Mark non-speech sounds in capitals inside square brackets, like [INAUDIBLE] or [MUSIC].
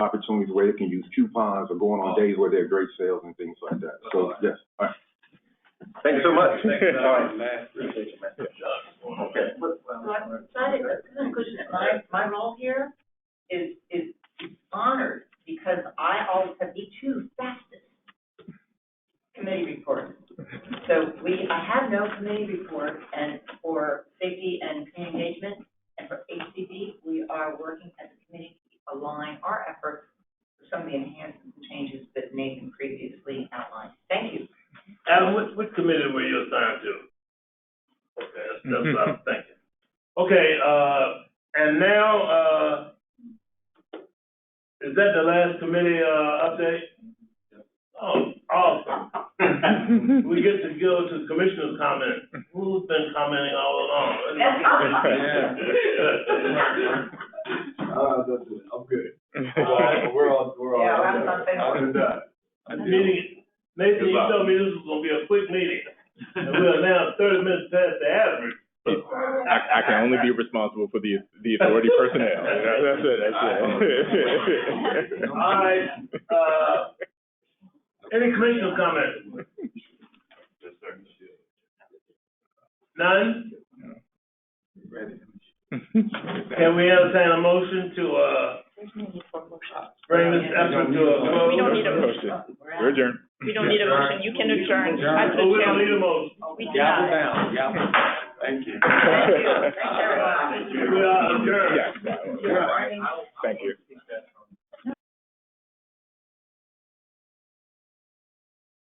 opportunities where they can use coupons or going on days where there are great sales and things like that. So, yes, all right. Thank you so much. All right. Okay. So I'm excited, that's kind of question, that my, my role here is, is honored, because I always have the two fastest committee reports. So we, I have no committee report, and for safety and community engagement, and for HCD, we are working as a committee to align our efforts for some of the enhancements and changes that Nathan previously outlined. Thank you. Adam, what, what committee were you assigned to? Mm-hmm. Okay, that's, that's what I'm thinking. Okay, uh, and now, uh, is that the last committee, uh, update? Oh, awesome. [LAUGHS] We get to go to commissioner's comment. Who's been commenting all along? [LAUGHS] Yeah. Uh, that's it, I'm good. All right, we're all, we're all. Yeah, I'm not saying- I'm done. Meeting, Nathan, you told me this was gonna be a quick meeting, and we're now thirty minutes past the average. I, I can only be responsible for the, the authority personnel. That's it, that's it. [LAUGHS] All right, uh, any commissioner comment? None? Can we entertain a motion to, uh, bring this effort to a close? We don't need a Motion. motion. [LAUGHS] We're adjourned. We don't need a motion. You can adjourn. Adjourn. As the Oh, we don't chair, need a motion. we Gavel cannot. down, gavel. Thank you. Thank you. Thank you.